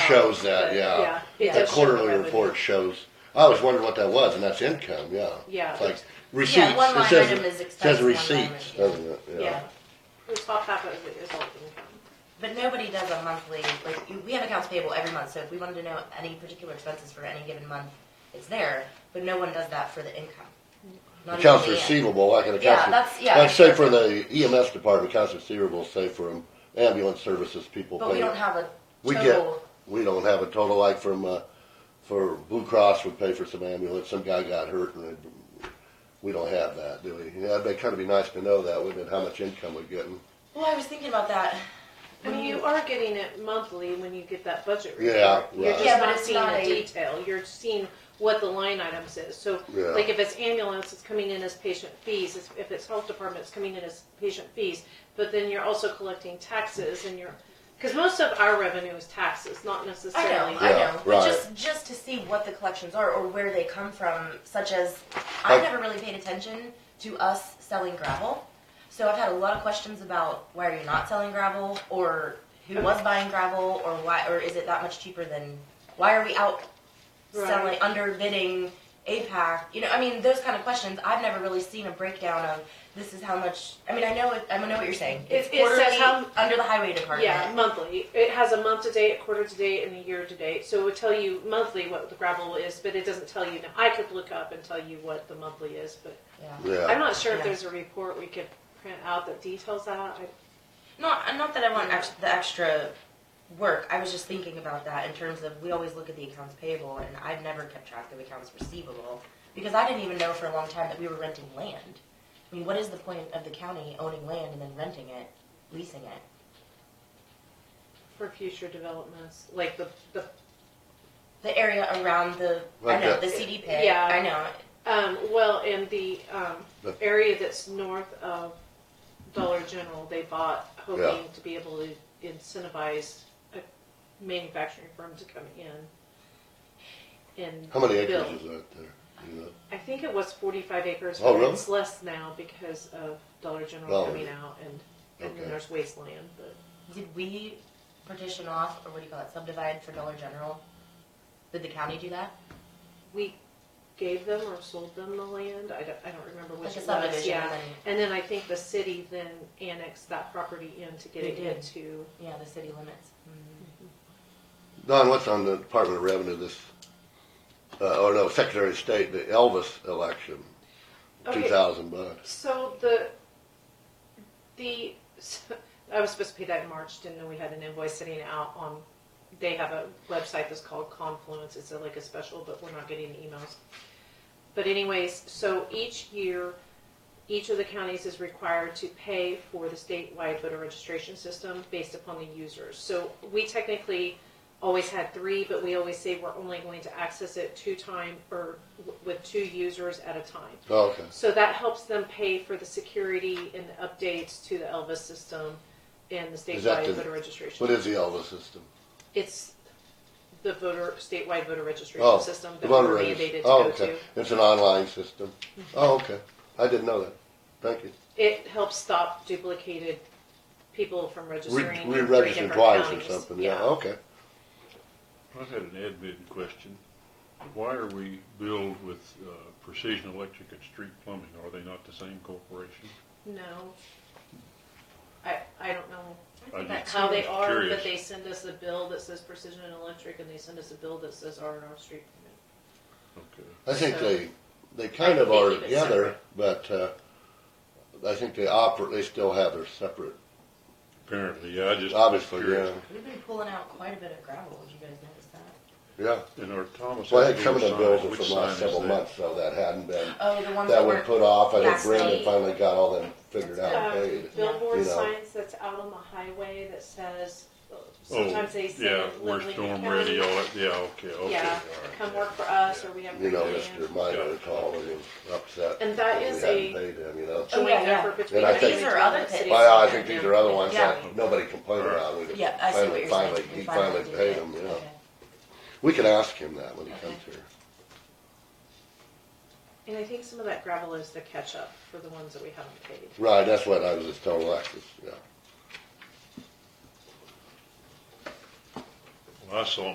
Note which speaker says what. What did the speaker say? Speaker 1: shows that,
Speaker 2: but,
Speaker 1: yeah.
Speaker 2: yeah, it
Speaker 1: The
Speaker 2: does show
Speaker 1: quarterly
Speaker 2: revenue.
Speaker 1: report shows, I was wondering what that was, and that's income, yeah.
Speaker 2: Yeah.
Speaker 1: It's like receipts,
Speaker 3: one
Speaker 1: it
Speaker 3: line
Speaker 1: says,
Speaker 3: item is
Speaker 1: it says
Speaker 3: expense, one line
Speaker 1: receipts,
Speaker 3: item.
Speaker 1: doesn't it?
Speaker 2: Yeah, the top half of it is all income.
Speaker 3: But nobody does a monthly, like, you- we have accounts payable every month, so if we wanted to know any particular expenses for any given month, it's there, but no one does that for the income. Not even
Speaker 1: Accounts
Speaker 3: Leanne.
Speaker 1: receivable, like an
Speaker 3: Yeah,
Speaker 1: accounts,
Speaker 3: that's- yeah,
Speaker 1: like say
Speaker 3: that's-
Speaker 1: for the EMS department, accounts receivable, say for ambulance services, people pay.
Speaker 3: But we don't have a
Speaker 1: We get,
Speaker 3: total,
Speaker 1: we don't have a total like from, uh, for Blue Cross would pay for some ambulance, some guy got hurt and it- we don't have that, do we? Yeah, it'd kinda be nice to know that, wouldn't it, how much income we're getting?
Speaker 3: well, I was thinking about that.
Speaker 2: I mean, you are getting it monthly when you get that budget report.
Speaker 1: Mm. Yeah,
Speaker 2: You're
Speaker 1: right.
Speaker 2: just
Speaker 3: Yeah, but
Speaker 2: not
Speaker 3: it's
Speaker 2: seeing
Speaker 3: not
Speaker 2: the
Speaker 3: a-
Speaker 2: detail. You're seeing what the line item says. So,
Speaker 1: Yeah.
Speaker 2: like if it's ambulance, it's coming in as patient fees. It's- If it's health department, it's coming in as patient fees. But then you're also collecting taxes and you're, because most of our revenue is taxes, not
Speaker 3: I
Speaker 2: necessarily.
Speaker 3: know, I
Speaker 1: Yeah,
Speaker 3: know,
Speaker 1: right.
Speaker 3: but just, just to see what the collections are or where they come from, such as, I
Speaker 1: Like-
Speaker 3: never really paid attention to us selling gravel. So I've had a lot of questions about why are you not selling gravel, or who was buying gravel, or why, or is it that much cheaper than, why are we out
Speaker 2: Right.
Speaker 3: selling, underbidding APAC? You know, I mean, those kind of questions, I've never really seen a breakdown of, this is how much, I mean, I know, it- I know what you're saying. It's
Speaker 2: It- it says
Speaker 3: quarterly,
Speaker 2: how-
Speaker 3: under the highway department.
Speaker 2: Yeah, monthly. It has a month to date, a quarter to date, and a year to date. So it would tell you monthly what the gravel is, but it doesn't tell you. Now, I could look up and tell you what the monthly is, but
Speaker 3: Yeah.
Speaker 2: I'm
Speaker 1: Yeah,
Speaker 2: not sure if
Speaker 3: Yeah.
Speaker 2: there's a report we could print out that details that. I-
Speaker 3: Not, not that I want ex- the extra work. I was just thinking about that in terms of we always look at the accounts payable, and I've never kept track of accounts receivable because I didn't even know for a long time that we were renting land. I mean, what is the point of the county owning land and then renting it, leasing it?
Speaker 2: For future developments, like the, the,
Speaker 3: The area around the I
Speaker 1: Like
Speaker 3: know
Speaker 1: the-
Speaker 3: the CD pit.
Speaker 2: Yeah.
Speaker 3: I know.
Speaker 2: um, well, in the, um,
Speaker 1: The-
Speaker 2: area that's north of Dollar General, they bought hoping
Speaker 1: Yeah.
Speaker 2: to be able to incentivize a manufacturing firm to come in. And
Speaker 1: how many
Speaker 2: build.
Speaker 1: acres is that there? You know?
Speaker 2: I think it was forty-five acres,
Speaker 1: Oh,
Speaker 2: but
Speaker 1: really?
Speaker 2: it's less now because of Dollar General
Speaker 1: Dollar
Speaker 2: coming
Speaker 1: General.
Speaker 2: out and, and
Speaker 1: Okay.
Speaker 2: then there's wasteland, but.
Speaker 3: Did we partition off, or what do you call it, subdivide for Dollar General? Did the county do that?
Speaker 2: we gave them or sold them the land. I don't, I don't remember which
Speaker 3: Like a
Speaker 2: it was,
Speaker 3: subdivision,
Speaker 2: yeah.
Speaker 3: and
Speaker 2: And then I think the city then annexed that property in to get
Speaker 3: They
Speaker 2: it
Speaker 3: did.
Speaker 2: into,
Speaker 3: Yeah, the city limits.
Speaker 1: Don, what's on the Department of Revenue this, uh, or no, Secretary of State, the Elvis election, two
Speaker 2: Okay.
Speaker 1: thousand bucks.
Speaker 2: so the, the, I was supposed to pay that in March, didn't know we had an invoice sitting out on, they have a website that's called Confluence, it's like a special, but we're not getting emails. But anyways, so each year, each of the counties is required to pay for the statewide voter registration system based upon the users. So we technically always had three, but we always say we're only going to access it two time, or w- with two users at a time.
Speaker 1: Oh, Okay,
Speaker 2: So that helps them pay for the security and the updates to the Elvis system and the
Speaker 1: Is that
Speaker 2: statewide
Speaker 1: the-
Speaker 2: voter registration.
Speaker 1: what is the Elvis system?
Speaker 2: It's the voter, statewide voter
Speaker 1: Oh,
Speaker 2: registration system
Speaker 1: the
Speaker 2: that
Speaker 1: voter
Speaker 2: we're
Speaker 1: regist-
Speaker 2: mandated to
Speaker 1: Oh,
Speaker 2: go
Speaker 1: okay.
Speaker 2: to.
Speaker 1: It's an online system. Oh, okay, I didn't know that, thank you.
Speaker 2: It helps stop duplicated people from
Speaker 1: Re-
Speaker 2: registering in three
Speaker 1: Re-register
Speaker 2: different
Speaker 1: twice or
Speaker 2: counties.
Speaker 1: something, yeah, okay.
Speaker 4: I had an admin question. Why are we billed with uh, Precision Electric and Street Plumbing? Are they not the same corporation?
Speaker 2: No. I, I don't know
Speaker 4: I
Speaker 3: That
Speaker 4: just
Speaker 2: how they
Speaker 4: was
Speaker 2: are, but
Speaker 4: curious.
Speaker 2: they send us a bill that says Precision Electric and they send us a bill that says R and R Street.
Speaker 4: Okay.
Speaker 1: I think
Speaker 2: So-
Speaker 1: they, they kind
Speaker 2: I
Speaker 1: of
Speaker 2: think
Speaker 1: are
Speaker 2: they keep it
Speaker 1: together, but, uh, I think they operate, they still have their separate,
Speaker 4: Apparently, yeah, I just. was
Speaker 1: obviously, yeah,
Speaker 4: curious.
Speaker 3: We've been pulling out quite a bit of gravel. Did you guys notice that?
Speaker 1: yeah.
Speaker 4: And our Thomas.
Speaker 1: Well, I
Speaker 4: Avenue
Speaker 1: think some of the
Speaker 4: sign,
Speaker 1: bills are
Speaker 4: which
Speaker 1: from the last
Speaker 4: sign is
Speaker 1: several
Speaker 4: that?
Speaker 1: months, so that hadn't been,
Speaker 3: Oh, the ones that,
Speaker 1: that
Speaker 3: were
Speaker 1: would put off, I think
Speaker 3: last
Speaker 1: Brendan
Speaker 3: night.
Speaker 1: finally got all them figured out
Speaker 2: Um,
Speaker 1: and paid.
Speaker 2: Billboard
Speaker 1: You know.
Speaker 2: signs that's out on the highway that says, uh, sometimes they say,
Speaker 4: Oh, Yeah,
Speaker 2: Lynn
Speaker 4: we're
Speaker 2: Lincoln
Speaker 4: storm
Speaker 2: County.
Speaker 4: ready, all that, yeah, okay, okay.
Speaker 2: Yeah,
Speaker 4: all right,
Speaker 2: come
Speaker 4: yeah,
Speaker 2: work for us,
Speaker 4: yeah.
Speaker 2: or we have.
Speaker 1: You know,
Speaker 2: free
Speaker 1: Mr.
Speaker 2: hand.
Speaker 1: Minor called and was upset.
Speaker 2: And that
Speaker 1: we
Speaker 2: is
Speaker 1: hadn't
Speaker 2: a-
Speaker 1: Paid him, you know.
Speaker 3: Oh,
Speaker 2: Joint
Speaker 3: yeah, yeah.
Speaker 2: effort between.
Speaker 1: And I
Speaker 2: the
Speaker 1: think-
Speaker 2: cities
Speaker 3: These are other
Speaker 2: cities.
Speaker 3: things.
Speaker 1: Well, I think these are other ones
Speaker 3: Yeah.
Speaker 1: that nobody complained about, we just
Speaker 3: Yeah, I see
Speaker 1: finally,
Speaker 3: what you're
Speaker 1: finally,
Speaker 3: saying.
Speaker 1: he
Speaker 3: We
Speaker 1: finally
Speaker 3: did
Speaker 1: paid
Speaker 3: it.
Speaker 1: him, yeah.
Speaker 3: Okay.
Speaker 1: We could ask him that when he comes here.
Speaker 2: And I think some of that gravel is the catch-up for the ones that we haven't paid.
Speaker 1: Right, that's what I was just telling Alexis, yeah.
Speaker 4: Well, I saw